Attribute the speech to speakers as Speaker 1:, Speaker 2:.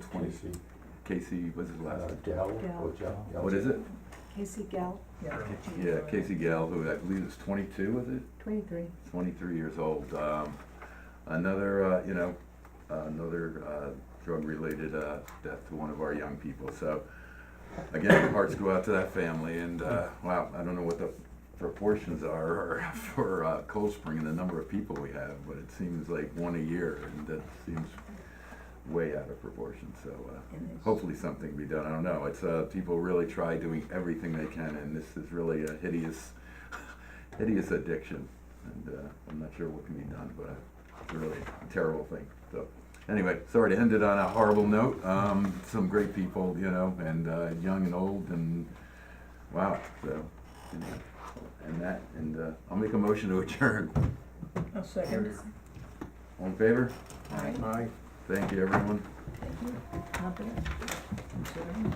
Speaker 1: twenty feet.
Speaker 2: Casey, what's his last
Speaker 1: Uh,
Speaker 2: name?
Speaker 1: Dell,
Speaker 3: Dell.
Speaker 1: or Jell- Dell.
Speaker 2: What is it?
Speaker 3: Casey Gal,
Speaker 2: Yeah, Casey Gale, who I believe is twenty-two, is it?
Speaker 3: twenty-three.
Speaker 2: Twenty-three years old. Um, another, uh, you know, another, uh, drug-related, uh, death to one of our young people. So, again, our hearts go out to that family and, uh, wow, I don't know what the proportions are for, uh, Cold Spring and the number of people we have, but it seems like one a year and that seems way out of proportion, so, uh, hopefully something be done. I don't know. It's uh, people really try doing everything they can, and this is really a hideous, hideous addiction. And uh, I'm not sure what can be done, but uh, it's a really terrible thing. So anyway, sorry to end it on a horrible note. Um, some great people, you know, and uh, young and old, and wow. So you know, and that, and uh, I'll make a motion to adjourn.
Speaker 4: I'll second.
Speaker 2: All in favor?
Speaker 3: Alright,
Speaker 1: Aye.
Speaker 2: Thank you, everyone.
Speaker 3: thank you. Confident? Considering?